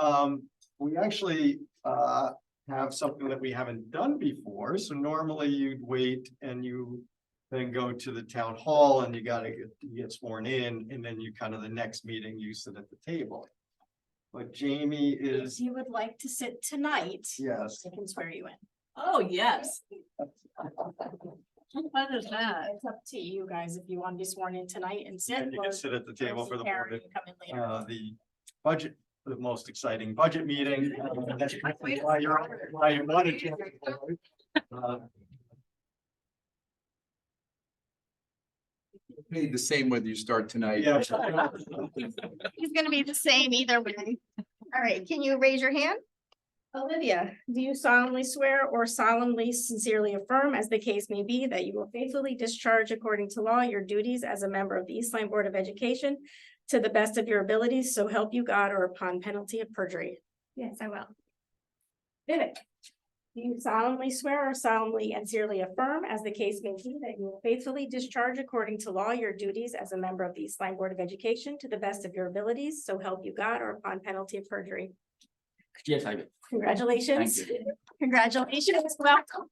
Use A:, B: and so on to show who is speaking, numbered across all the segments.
A: Um, we actually, uh, have something that we haven't done before, so normally you'd wait and you. Then go to the town hall and you gotta get, you get sworn in, and then you kind of the next meeting, you sit at the table. But Jamie
B: If
A: is,
B: you would like to sit tonight,
A: yes,
B: I can swear you in.
C: Oh, yes. What is that?
B: It's up to you guys if you want to be sworn in tonight and sit.
A: and you
B: or-
A: can sit at the
B: or
A: table
B: see
A: for the
B: Karen
A: board,
B: and Come in later.
A: uh, the budget, the most exciting budget meeting. uh, that's Why you're, why you wanted to. Uh,
D: Paid the same whether you start tonight.
A: Yeah.
E: It's gonna be the same either way. All right, can you raise your hand?
B: Olivia, do you solemnly swear or solemnly sincerely affirm, as the case may be, that you will faithfully discharge according to law your duties as a member of the Eastline Board of Education to the best of your abilities, so help you God or upon penalty of perjury?
E: Yes, I will.
B: Vivek, do you solemnly swear or solemnly and sincerely affirm, as the case may be, that you will faithfully discharge according to law your duties as a member of the Eastline Board of Education to the best of your abilities, so help you God or upon penalty of perjury?
D: Yes, I do.
B: Congratulations.
D: Thank
B: Congratulations, welcome.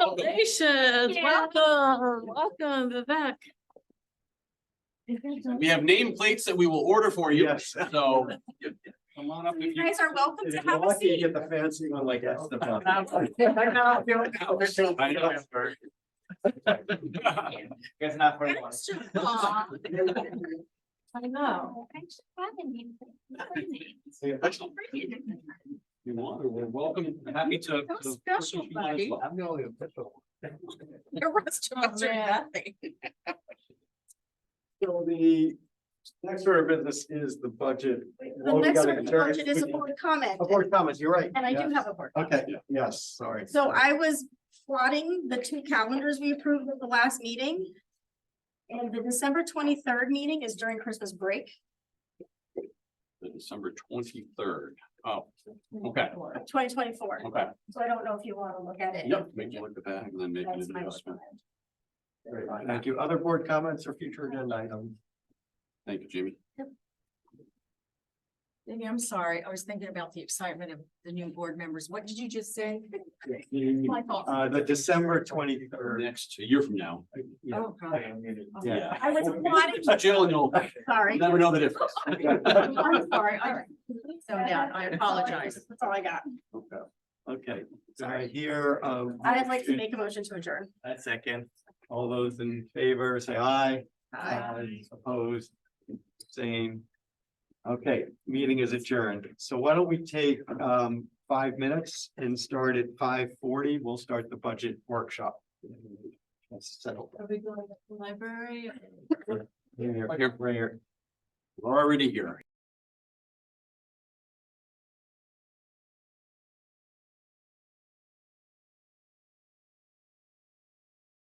C: Congratulations,
B: Yeah.
C: welcome, welcome Vivek.
D: We have nameplates that we will order for you,
A: Yes.
D: so. Come on up if
B: You
D: you.
B: guys are welcome
A: If
B: to
A: you're
B: have a
A: lucky, you
B: seat.
A: get the fancy one like that's the.
D: I know.
F: It's not for everyone.
C: Aw, I know.
D: You want, we're welcome, happy to.
C: That was special, buddy.
D: I'm the only official.
C: Your restaurants are
B: man.
C: nothing.
A: So the next order of business is the budget.
B: The
A: Well, we
B: next
A: gotta
B: one,
A: adjourn it.
B: budget is a board comment,
A: Oh, board comments, you're right.
B: and I do
A: Yes.
B: have a board. comment.
A: Okay, yes, sorry.
B: So I was plotting the two calendars we approved at the last meeting. And the December twenty-third meeting is during Christmas break.
D: The December twenty-third. Oh, okay,
B: Twenty twenty-four,
D: okay.
B: so I don't know if you want to look at it.
D: Yep, make you look at that and then make an
B: That's my
D: adjustment.
B: comment.
A: Very fine, Thank you. Other board comments or future agenda items?
D: Thank you, Jimmy.
C: Maybe I'm sorry, I was thinking about the excitement of the new board members. What did you just say? My fault.
A: Uh, the December twenty-third.
D: Next, a year from now.
C: Oh, God.
A: Yeah.
B: I was plotting,
D: Jill, you'll
B: sorry.
D: never know the difference.
C: I'm sorry, I zoned out, I apologize.
B: That's all I got.
A: Okay. Okay, so I hear, uh,
B: I'd like to make a motion to adjourn.
A: a second. All those in favor, say aye. Opposed, same. Okay, meeting is adjourned. So why don't we take um five minutes and start at five forty? We'll start the budget workshop. Let's settle.
C: Are we going to the library?
A: Here,
D: Here.
A: here.
D: We're already here.